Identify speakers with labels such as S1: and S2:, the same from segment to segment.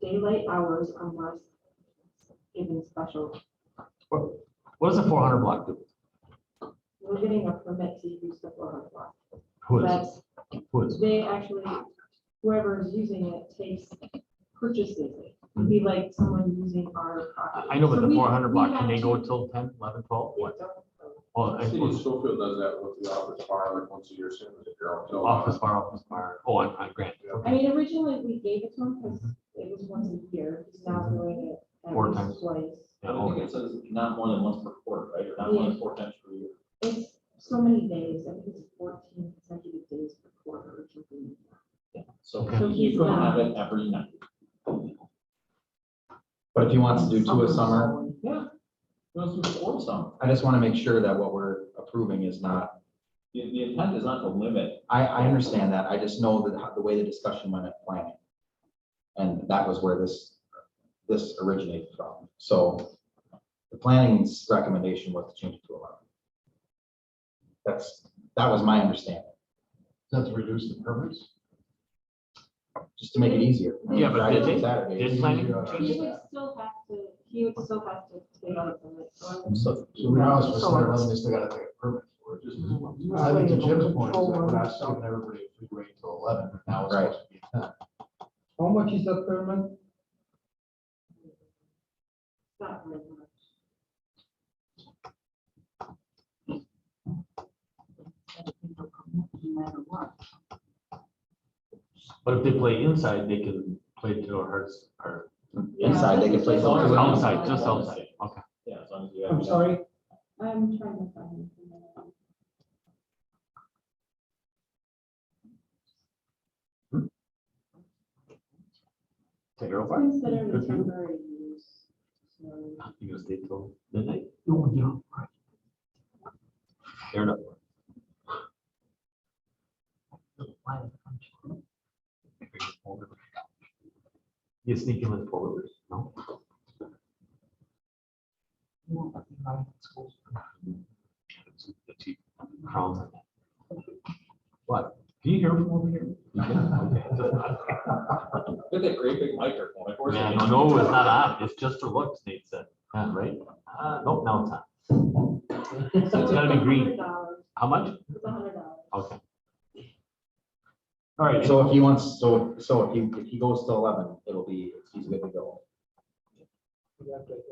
S1: daylight hours unless given special,
S2: What does the four hundred block do?
S1: we're getting a permit to use the four hundred block.
S2: Who is,
S1: That's,
S2: who is?
S1: they actually, whoever is using it takes, purchases it. It'd be like someone using our property.
S2: I know, but
S1: So
S2: the
S1: we-
S2: four hundred
S1: we
S2: block, can
S1: have
S2: they
S1: to-
S2: go till 10, 11, 12?
S1: Yeah,
S2: What?
S1: don't-
S2: Oh, I
S3: City of
S2: suppose
S3: Schofield does that with the office fire like once a year, same as the Carroll.
S2: office bar, office bar. Oh, I'm, I'm Grant.
S3: Yeah.
S1: I mean, originally, we gave it to him because it was once a year, he's now doing it at
S2: Four
S1: least
S2: times.
S1: twice.
S2: Yeah,
S4: I think
S2: okay.
S4: it says not more than once per quarter, right, or not more than four times per year.
S1: It's so many days, I think it's fourteen consecutive days per quarter or something.
S4: So
S2: Okay.
S1: So he's
S4: you could
S1: not-
S4: have it every night.
S5: But if he wants to do two a
S1: Something
S5: summer,
S1: like that.
S4: Yeah. Those are four some.
S5: I just want to make sure that what we're approving is not,
S4: The, the intent is not to limit.
S5: I, I understand that. I just know that how- the way the discussion went at planning. And that was where this, this originated from. So the planning's recommendation was to change it to eleven. That's, that was my understanding,
S6: That's reduce the permits?
S5: just to make it easier.
S2: Yeah, but
S5: Fridays and
S1: did they-
S5: Saturdays.
S2: did planning
S6: Yeah.
S1: He
S2: change
S1: would still have to, he would still have to take out a permit. so I'm-
S5: So
S6: So we also, it's not eleven, they still gotta take a permit for it. Just- I think to Jim's point, is that we're not stopping everybody if we wait till eleven, but now it's
S5: Right.
S6: supposed to be ten.
S7: How much is that per month?
S1: it's Not very much. No matter what.
S2: But if they play inside, they can play to our hearts or
S5: inside, they can play.
S1: It's
S4: all
S5: something else.
S2: outside, just outside. Okay.
S4: Yeah, as long as you have.
S7: I'm sorry,
S1: I'm trying to find. it.
S2: You're
S1: It's
S2: over.
S1: Considered a
S2: Good for you.
S1: temporary use. so-
S2: You gonna stay till midnight? No, you don't. Fair enough. You sneak him in forward, no? Crowns. What? Can you hear from over here?
S4: Look at that great big microphone. Of course
S2: Yeah,
S4: it
S2: no,
S4: is.
S2: no, it's not on. It's just for looks, Nate said. Yeah, right? Uh, nope, now it's on. So it's gotta be green.
S1: $100,
S2: How much?
S1: It's a hundred dollars.
S2: Okay. All right,
S5: So if he wants, so, so if he, if he goes to eleven, it'll be, he's good to go.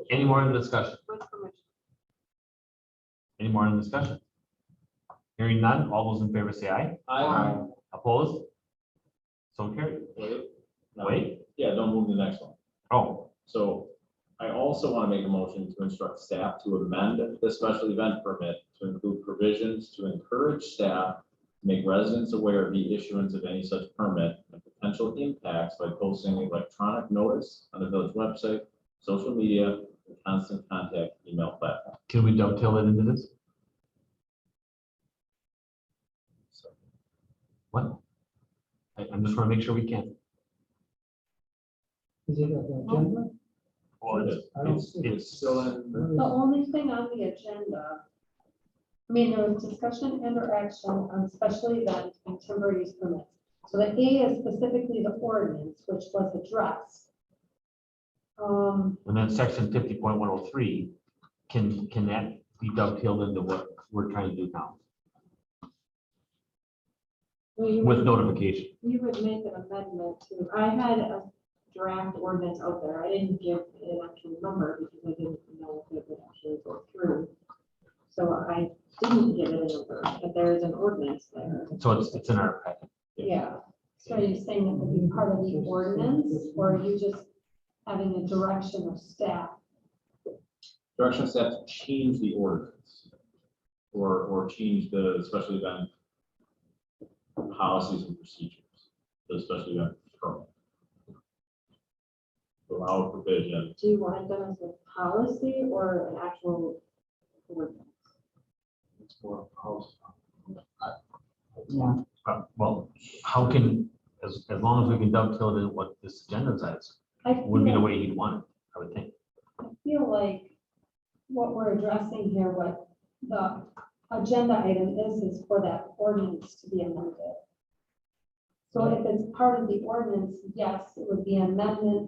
S2: any more in discussion?
S1: With permission.
S2: Any more in discussion? Hearing none, all those in favor say aye.
S4: I,
S2: Opposed? So carried.
S4: wait, no,
S2: Wait,
S4: yeah, don't move to the next one.
S2: oh,
S4: So I also want to make a motion to instruct staff to amend the special event permit to include provisions to encourage staff to make residents aware of the issuance of any such permit and potential impacts by posting electronic notice on the village website, social media, and constant contact email platform.
S2: can we dovetail it into this? What? I, I'm just wanna make sure we can.
S7: is it on the agenda?
S2: Well, it's,
S7: I don't
S2: it's-
S7: see it.
S2: it's
S4: Still in.
S1: The only thing on the agenda, I mean, there was discussion and or action on special event and temporary use permits. So the A is specifically the ordinance, which was addressed. Um,
S2: And then section fifty point one oh three, can, can that be dovetailed into what we're trying to do now?
S1: we
S2: With notification,
S1: we would make an amendment to, I had a draft ordinance out there, I didn't give an actual number because I didn't know if it would actually go through. So I didn't give it a number, but there is an ordinance there,
S2: so it's, it's in our packet.
S1: yeah. So are you saying it would be part of the ordinance, or are you just having a direction of staff?
S4: Direction of staff to change the ordinance. Or, or change the special event policies and procedures, the special event permit. Allow provision,
S1: Do you want it done as a policy or an actual ordinance?
S6: It's more house.
S2: Uh, Well, how can, as, as long as we can dovetail it in what this agenda is,
S1: I
S2: would be the
S1: feel-
S2: way you'd want it, I would think.
S1: I feel like what we're addressing here, what the agenda item is, is for that ordinance to be amended. So if it's part of the ordinance, yes, it would be an amendment